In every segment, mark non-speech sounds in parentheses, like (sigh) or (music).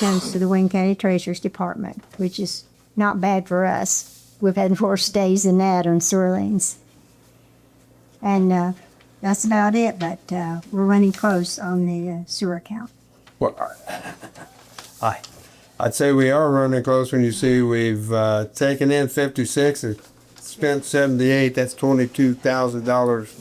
donations to the Wayne County Treasurer's Department, which is not bad for us. We've had four stays in that on sewer lanes. And uh, that's about it, but uh, we're running close on the uh, sewer account. Well, I- (laughs) I, I'd say we are running close when you see we've, uh, taken in fifty-six and spent seventy-eight, that's twenty-two thousand dollars.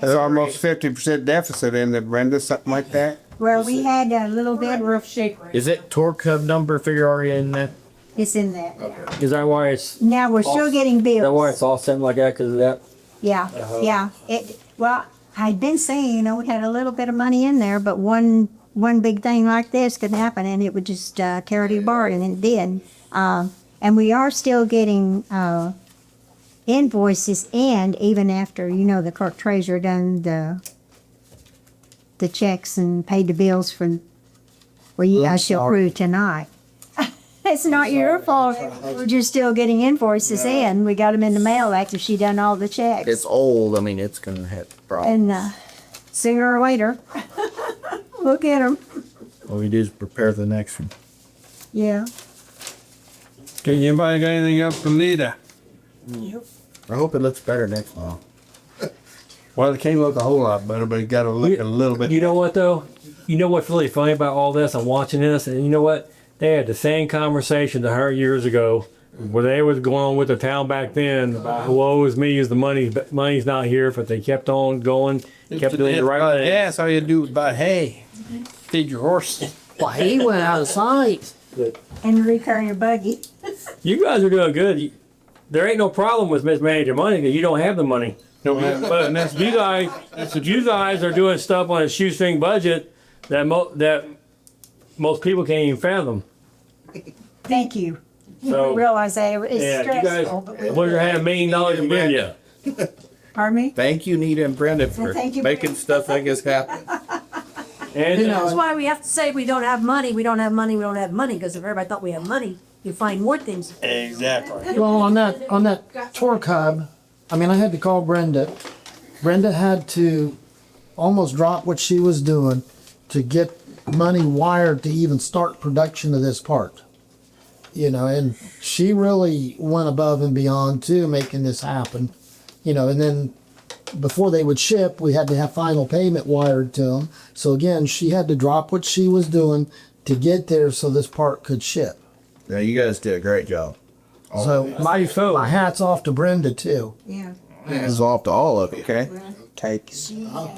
There's almost fifty percent deficit in there, Brenda, something like that. Well, we had a little bit, roof shaker. Is that torque curve number figure E already in that? it's in that. Is that why it's, Now, we're still getting bills. that why it's all sitting like that because of that? Yeah, yeah. It, well, I'd been saying, you know, we had a little bit of money in there, but one, one big thing like this could happen and it would just, uh, tear it apart and it did. Uh, and we are still getting, uh, invoices and even after, you know, the clerk treasurer done the, the checks and paid the bills for, well, you- I shall prove tonight. (laughs) It's not your fault. We're just still getting invoices in. We got them in the mail after she done all the checks. It's old. I mean, it's gonna have problems. And uh, sooner or (laughs) later, we'll get them. All we do is prepare the next one. Yeah. Okay, anybody got anything else for Lita? I hope it looks better next time. Well, it can't look a whole lot better, but it gotta look a little You bit. know what though? You know what's really funny about all this? I'm watching this, and you know what? They had the same conversation to her years ago, where they was going on with the town back then. About, Woe is me, is the money, but money's not here. But they kept on going, kept doing the right thing. Uh, Mm-hmm. Yeah, that's all you do is buy hay, feed your horse. Well, he went out of sight. And return your buggy. You guys are doing good. You- There ain't no problem with mismanaging money because you don't have the money. Don't have- But you guys, you guys are doing stuff on a shoestring budget that mo- that most people can't even fathom. Thank you. I So. realize that it's Yeah, you guys, stressful, but we, we're gonna have a million dollars in Brenda. pardon me? Thank you, Nita and Brenda, for Thank you, making stuff like this happen. And That's why we have to say we don't have money, we don't have money, we don't have money, because if everybody thought we had money, you'd find more things. Exactly. Well, on that, on that tour cub, I mean, I had to call Brenda. Brenda had to almost drop what she was doing to get money wired to even start production of this part. You know, and she really went above and beyond too, making this happen. You know, and then before they would ship, we had to have final payment wired to them. So again, she had to drop what she was doing to get there so this part could ship. (laughs) Yeah, you guys did a great job. So my, my hat's off to Brenda too. Yeah. This is off to all of you. Okay. Takes. Uh-huh.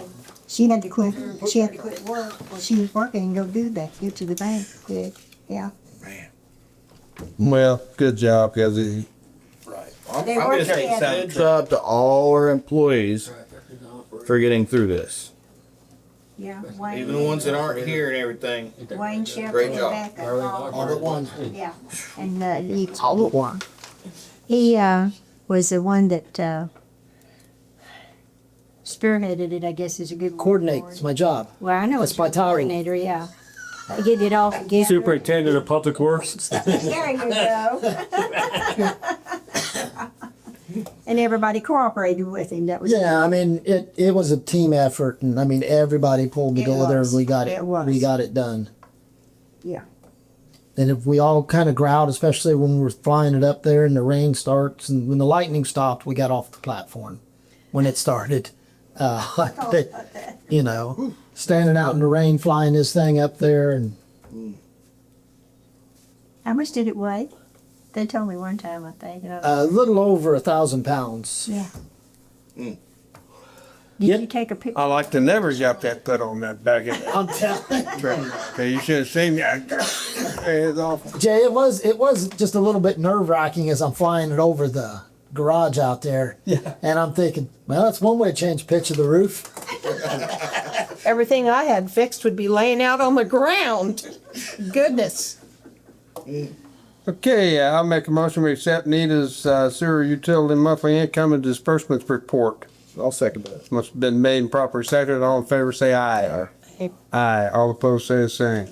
She had to quit, she had to quit work. She was working and go do that, go to the bank, quick. Yeah. Well, good job, cause it, I'm, They I'm work just saying, together. good job to all our employees for getting through this. Yeah. Even the ones that aren't here and everything. Wayne Shepherd. Great job. All the ones. Yeah, and uh, he told one. He uh, was the one that uh, spearheaded it. I guess is a good word coordinate. for it. It's my job. Well, I know it's my tiring. coordinator. Yeah, get it all together. Superintendent of Public Works. There you go. (laughs) and everybody cooperated with him. That was Yeah, I mean it. It was a team effort, and I mean everybody pulled It together. was. and We got it. It was. We got it done. Yeah. And if we all kind of growled, especially when we were flying it up there, and the rain starts, and when the lightning stopped, we got off the platform when it started. (laughs) Uh, that, you know, standing out in the rain, flying this thing up there, and How much did it weigh? They told me one time. I think. and I- a uh, little over a thousand (laughs) pounds. yeah. mm. Did you take a picture? I like the numbers you have that put on that back end. I'm telling. Okay, you should have seen that. (coughs) It's awful. Jay, it was it was just a little bit nerve wracking as I'm flying it over the garage out there. Yeah. And I'm thinking, well, that's one way to change the pitch of the roof. everything I had fixed would be laying out on the ground. Goodness. Okay, uh, I'll make a motion we accept Nita's uh, sewer utility monthly income and disbursements report. I'll second that. Must have been made and properly seconded. All in favor, say aye. Aye. Aye. All opposed, say the same.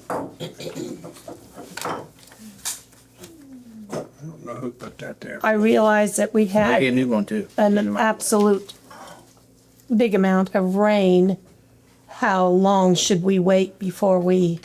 I don't know who put that there. I realized that we I get a had new one too. an absolute big amount of rain. How long should we wait before we